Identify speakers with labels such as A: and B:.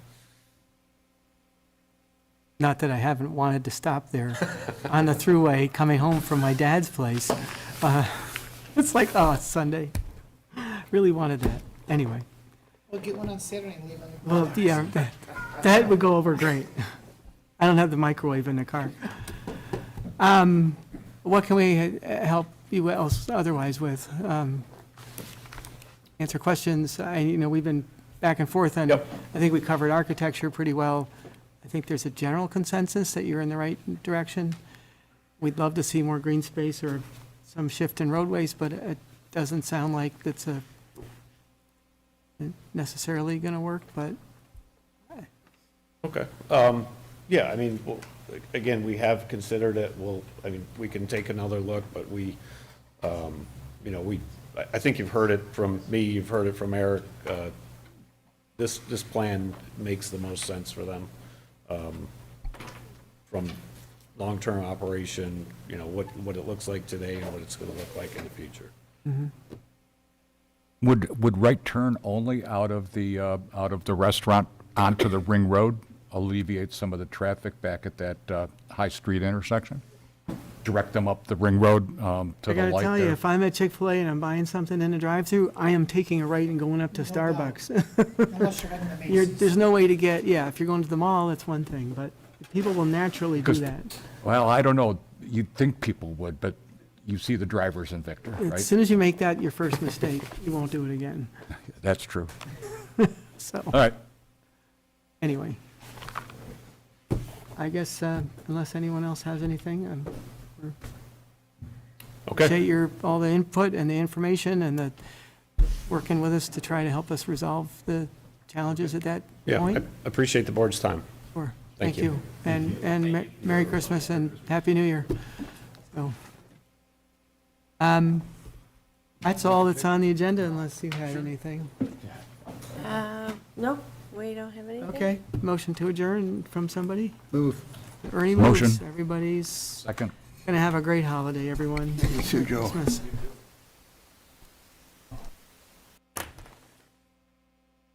A: Not that I haven't wanted to stop there on the thruway coming home from my dad's place. Uh, It's like, oh, it's Sunday. Really wanted that. Anyway,
B: We'll get one on Saturday and leave on the.
A: well, yeah, that- that would go over great. I don't have the microwave in the car. Um, What can we uh, help you else otherwise with? Um, Answer questions. I, you know, we've been back and forth on.
C: Yep.
A: I think we covered architecture pretty well. I think there's a general consensus that you're in the right direction. We'd love to see more green space or some shift in roadways, but it doesn't sound like that's a necessarily going to work, but
C: Okay. Um, Yeah, I mean, well, again, we have considered it, we'll, I mean, we can take another look, but we, um, you know, we, I- I think you've heard it from me, you've heard it from Eric. uh, This, this plan makes the most sense for them um, from long-term operation, you know, what, what it looks like today and what it's going to look like in the future.
D: Would, would right turn only out of the, uh, out of the restaurant onto the Ring Road alleviate some of the traffic back at that uh, High Street intersection? Direct them up the Ring Road um, to
A: I
D: the
A: gotta
D: light
A: tell you,
D: there?
A: if I'm at Chick-fil-A and I'm buying something in the drive-through, I am taking a right and going up to
B: doubt.
A: Starbucks.
B: Unless you're having the
A: You're,
B: Masons.
A: there's no way to get, yeah, if you're going to the mall, that's one thing, but people will naturally do
D: 'Cause
A: that.
D: Well, I don't know, you'd think people would, but you see the drivers in Victor,
A: As
D: right?
A: soon as you make that your first mistake, you won't do it again.
D: That's true.
A: So,
C: Uh.
D: All right,
A: anyway. I guess, uh, unless anyone else has anything, um, appreciate your, all the input and the information and the, working with us to try to help us resolve the challenges at that
C: Yeah,
A: point.
C: I appreciate the board's time.
A: Sure.
C: Thank
A: Thank
C: you.
A: you. And, and me- Merry Christmas and Happy New Year. So, um, That's all that's on the agenda unless you had anything.
E: Uh, No, we don't have anything.
A: Okay, motion to adjourn from somebody?
F: Move.
A: Ernie moves.
D: Motion.
A: Everybody's
D: second.
A: going to have a great holiday, everyone.
F: You too, Joe.
A: Christmas.